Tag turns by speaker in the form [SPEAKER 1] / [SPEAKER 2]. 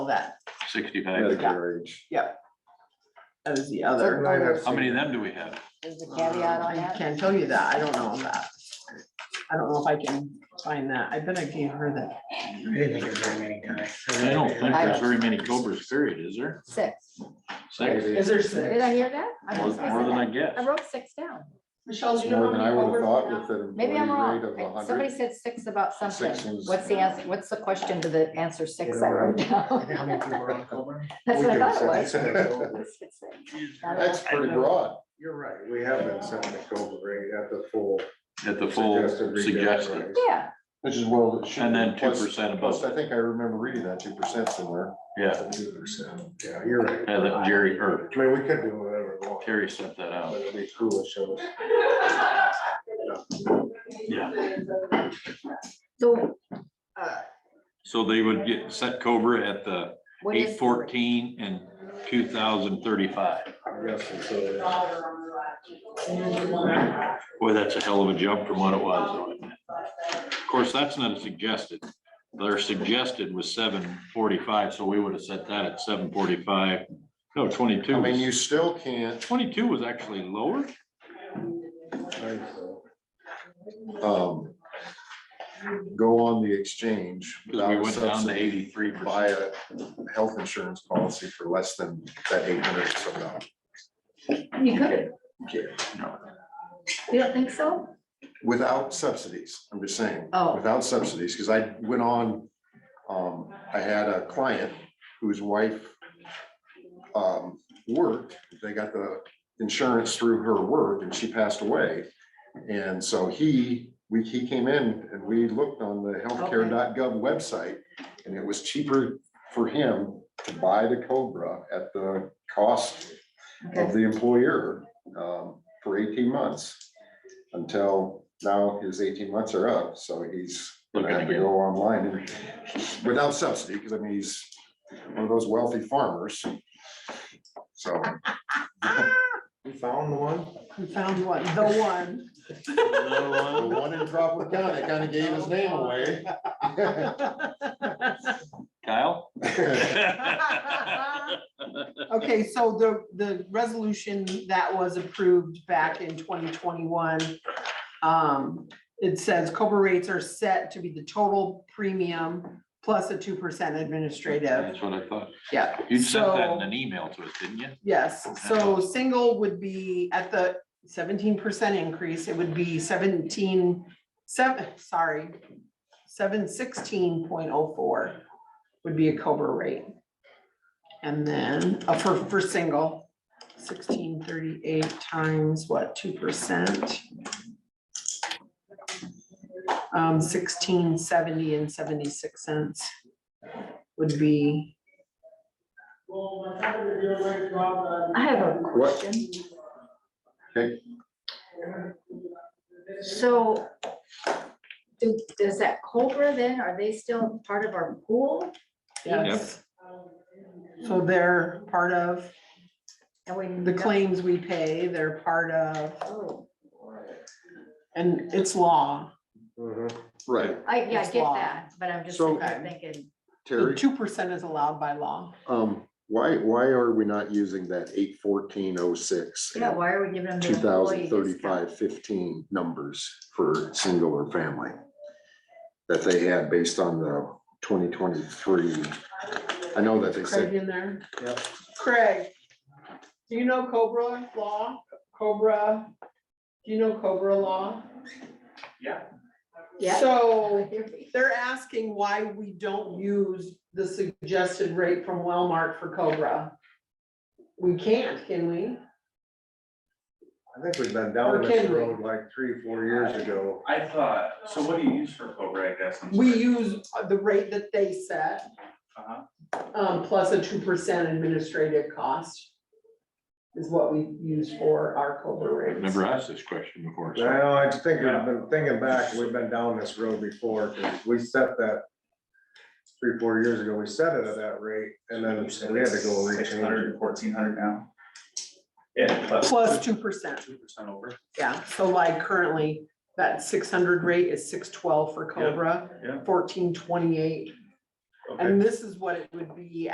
[SPEAKER 1] that.
[SPEAKER 2] Sixty-five.
[SPEAKER 3] That's their age.
[SPEAKER 1] That was the
[SPEAKER 3] And
[SPEAKER 1] other.
[SPEAKER 3] I'd have to
[SPEAKER 2] How many
[SPEAKER 3] say-
[SPEAKER 2] of them do we have?
[SPEAKER 4] Is the caveat on
[SPEAKER 1] I
[SPEAKER 4] that?
[SPEAKER 1] can't tell you that. I don't know that. I don't know if I can find that. I bet I gave her that.
[SPEAKER 5] I didn't think it was very many times.
[SPEAKER 2] I don't think
[SPEAKER 4] I
[SPEAKER 2] there's
[SPEAKER 4] don't-
[SPEAKER 2] very many Cobras period, is there?
[SPEAKER 4] Six.
[SPEAKER 2] Six,
[SPEAKER 3] Maybe.
[SPEAKER 5] there
[SPEAKER 4] Did I hear that? I
[SPEAKER 2] more
[SPEAKER 4] was- I
[SPEAKER 2] more
[SPEAKER 4] said
[SPEAKER 2] than I
[SPEAKER 4] that.
[SPEAKER 2] guess.
[SPEAKER 4] I wrote six down.
[SPEAKER 6] Michelle, do
[SPEAKER 3] It's
[SPEAKER 6] you know?
[SPEAKER 3] more
[SPEAKER 6] how
[SPEAKER 3] than
[SPEAKER 6] many
[SPEAKER 3] I would have
[SPEAKER 6] Cobras
[SPEAKER 3] thought
[SPEAKER 6] now?
[SPEAKER 3] with an
[SPEAKER 4] Maybe I'm
[SPEAKER 3] employee rate
[SPEAKER 4] wrong.
[SPEAKER 3] of a
[SPEAKER 4] I- Somebody
[SPEAKER 3] hundred.
[SPEAKER 4] said six about
[SPEAKER 3] Six
[SPEAKER 4] something.
[SPEAKER 3] was-
[SPEAKER 4] What's the answer? What's the question to the answer six I wrote down?
[SPEAKER 5] How many people are on Coburn?
[SPEAKER 4] That's
[SPEAKER 3] We
[SPEAKER 4] what I
[SPEAKER 3] could have
[SPEAKER 4] thought it was.
[SPEAKER 3] said that.
[SPEAKER 4] Let's fix it. Not
[SPEAKER 3] That's
[SPEAKER 4] enough.
[SPEAKER 3] pretty broad.
[SPEAKER 5] You're right.
[SPEAKER 3] We have been setting the COBRA rate at the full.
[SPEAKER 2] At the full
[SPEAKER 3] suggested retail
[SPEAKER 2] suggested,
[SPEAKER 3] price,
[SPEAKER 4] Yeah,
[SPEAKER 3] Which is well. it should
[SPEAKER 2] and
[SPEAKER 3] be.
[SPEAKER 2] then two
[SPEAKER 3] Plus-
[SPEAKER 2] percent
[SPEAKER 3] Plus,
[SPEAKER 2] above,
[SPEAKER 3] I think I remember reading that two percent somewhere.
[SPEAKER 2] yeah.
[SPEAKER 3] Two percent. Yeah, you're right.
[SPEAKER 2] Yeah, that Jerry, or
[SPEAKER 3] I mean, we could do whatever we want.
[SPEAKER 2] Terry sent that
[SPEAKER 3] But
[SPEAKER 2] out.
[SPEAKER 3] it'd be foolish of us.
[SPEAKER 2] Yeah.
[SPEAKER 4] so. uh,
[SPEAKER 2] So they would get set Cobra at the
[SPEAKER 4] what is-
[SPEAKER 2] eight fourteen and two thousand thirty-five.
[SPEAKER 3] I guess it's, uh,
[SPEAKER 2] Boy, that's a hell of a jump from what it was. though, isn't it? Of course, that's not a suggested. Their suggested was seven forty-five, so we would have set that at seven forty-five. No, twenty-two.
[SPEAKER 3] I mean,
[SPEAKER 2] was-
[SPEAKER 3] you still can't.
[SPEAKER 2] Twenty-two was actually lower.
[SPEAKER 3] um, Go on the exchange.
[SPEAKER 2] Because we
[SPEAKER 3] without
[SPEAKER 2] went down to
[SPEAKER 3] subsidy.
[SPEAKER 2] eighty-three
[SPEAKER 3] buy
[SPEAKER 2] percent.
[SPEAKER 3] a health insurance policy for less than that eight hundred or so dollars.
[SPEAKER 4] You could,
[SPEAKER 2] No.
[SPEAKER 4] you don't think so?
[SPEAKER 3] Without subsidies, I'm just saying.
[SPEAKER 4] Oh.
[SPEAKER 3] Without subsidies, because I went on, um, I had a client whose wife um, worked, they got the insurance through her work and she passed away. And so he, we, he came in and we looked on the healthcare.gov website and it was cheaper for him to buy the Cobra at the cost of
[SPEAKER 4] Okay.
[SPEAKER 3] the employer um, for eighteen months. Until now, his eighteen months are up, so he's gonna
[SPEAKER 2] Looking
[SPEAKER 3] have to
[SPEAKER 2] again.
[SPEAKER 3] go online and without subsidy, because I mean, he's one of those wealthy farmers. So. We found the one?
[SPEAKER 1] We found one, the one.
[SPEAKER 3] The one in Crawford County, kind of gave his name away.
[SPEAKER 2] Kyle?
[SPEAKER 1] Okay, so the, the resolution that was approved back in twenty twenty-one. Um, it says Cobra rates are set to be the total premium plus a two percent administrative.
[SPEAKER 2] That's what I thought.
[SPEAKER 1] Yeah.
[SPEAKER 2] You sent that
[SPEAKER 1] so-
[SPEAKER 2] in an email to us, didn't you?
[SPEAKER 1] Yes, so single would be at the seventeen percent increase, it would be seventeen, seven, sorry. Seven sixteen point oh four would be a Cobra rate. And then, uh, for, for single, sixteen thirty-eight times what, two percent? Um, sixteen seventy and seventy-six cents would be
[SPEAKER 4] I have a
[SPEAKER 3] What?
[SPEAKER 4] question.
[SPEAKER 3] Okay.
[SPEAKER 4] So do- does that Cobra then, are they still part of our pool?
[SPEAKER 2] Yep.
[SPEAKER 1] Yes. So they're part of
[SPEAKER 4] And we-
[SPEAKER 1] the claims we pay, they're part of,
[SPEAKER 4] Oh,
[SPEAKER 1] and it's law.
[SPEAKER 3] Right,
[SPEAKER 4] I, yeah, I
[SPEAKER 1] It's
[SPEAKER 4] get
[SPEAKER 1] law.
[SPEAKER 4] that, but I'm just
[SPEAKER 3] So-
[SPEAKER 4] thinking,
[SPEAKER 3] Terry,
[SPEAKER 1] Two percent is allowed by law.
[SPEAKER 3] um, why, why are we not using that eight fourteen oh six?
[SPEAKER 4] yeah, why are we giving them? the
[SPEAKER 3] two
[SPEAKER 4] employee
[SPEAKER 3] thousand
[SPEAKER 4] discount?
[SPEAKER 3] thirty-five fifteen numbers for single or family that they had based on the twenty twenty-three. I know that they
[SPEAKER 1] Craig
[SPEAKER 3] said,
[SPEAKER 1] in there?
[SPEAKER 3] Yep.
[SPEAKER 1] Craig, do you know Cobra law? Cobra, do you know Cobra law?
[SPEAKER 4] Yeah.
[SPEAKER 1] So they're asking why we don't use the suggested rate from Wellmark for Cobra. We can't, can we?
[SPEAKER 3] I think we've been
[SPEAKER 1] Or
[SPEAKER 3] down
[SPEAKER 1] can
[SPEAKER 3] this
[SPEAKER 1] we?
[SPEAKER 3] road like three, four years ago.
[SPEAKER 7] I thought, so what do you use for Cobra, I guess? I'm
[SPEAKER 1] We
[SPEAKER 7] sorry.
[SPEAKER 1] use the rate that they set.
[SPEAKER 7] Uh-huh.
[SPEAKER 1] Um, plus a two percent administrative cost. Is what we use for our Cobra rates.
[SPEAKER 2] Never asked this question before. so-
[SPEAKER 8] Well, I just think we've been thinking back, we've been down this road before, 'cause we set that three, four years ago, we set it at that rate, and then
[SPEAKER 3] Uh,
[SPEAKER 8] we had to go
[SPEAKER 7] Six hundred
[SPEAKER 8] rechange.
[SPEAKER 7] and fourteen hundred now. Yeah.
[SPEAKER 1] Plus two percent,
[SPEAKER 7] Two percent over.
[SPEAKER 1] yeah, so like currently, that six hundred rate is six twelve for Cobra.
[SPEAKER 7] yeah.
[SPEAKER 1] Fourteen twenty-eight,
[SPEAKER 7] Okay.
[SPEAKER 1] and this is what it would be